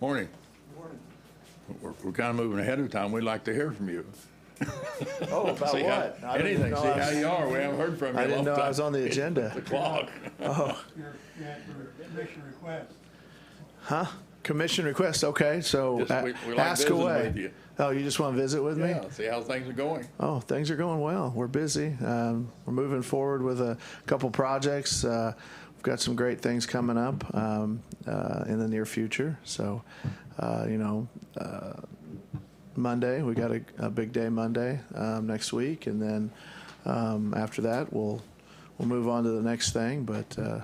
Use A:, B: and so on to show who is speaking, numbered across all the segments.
A: Morning. We're, we're kind of moving ahead of time. We'd like to hear from you.
B: Oh, about
A: See how-
B: what? I didn't
A: Anything,
B: know
A: see
B: I
A: how
B: was-
A: you are. We haven't heard from you.
B: I
A: in a
B: didn't
A: long
B: know I was
A: time.
B: on the agenda.
A: The clock.
C: your, your commission request.
B: Huh? Commission request, okay, so
A: Just
B: a-
A: we- we like
B: ask
A: visiting
B: away.
A: with you.
B: Oh, you just want to visit with me?
A: Yeah, see how things are going.
B: Oh, things are going well. We're busy. Um, we're moving forward with a couple projects. Uh, we've got some great things coming up um, uh, in the near future. So, uh, you know, uh, Monday, we got a, a big day Monday um, next week. And then um, after that, we'll, we'll move on to the next thing. But uh,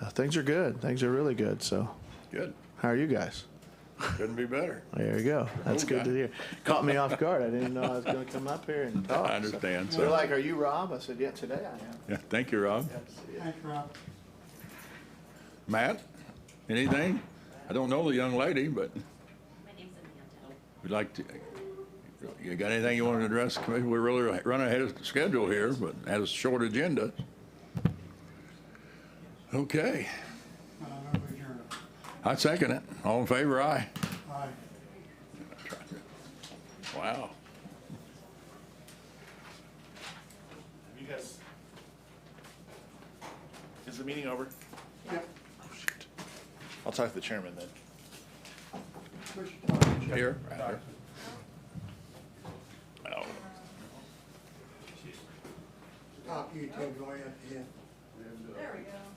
B: uh, things are good. Things are really good. So,
A: Good.
B: how are you guys?
A: Couldn't be better.
B: There you go. That's
A: Okay.
B: good to hear. Caught me off guard. I didn't know I was going to come up here and talk.
A: I understand,
B: They're
A: so,
B: like, "Are you Rob?" I said, "Yeah, today I
A: yeah, thank you, Rob.
B: am."
C: Thanks, Rob.
A: Matt, anything? I don't know the young lady, but
D: My name's Amanda.
A: we'd like to, you got anything you want to address? Committee? We're really running ahead of schedule here, but had a short agenda. Okay,
C: I Uh, move adjourned.
A: I second it. All in favor, aye.
C: Aye.
A: Wow.
E: You guys. Is the meeting over?
C: Yep,
E: I'll talk to the chairman then.
C: push the button.
A: Here, right here. Oh,
C: Top you, Ted, go ahead, yeah.
D: There we go.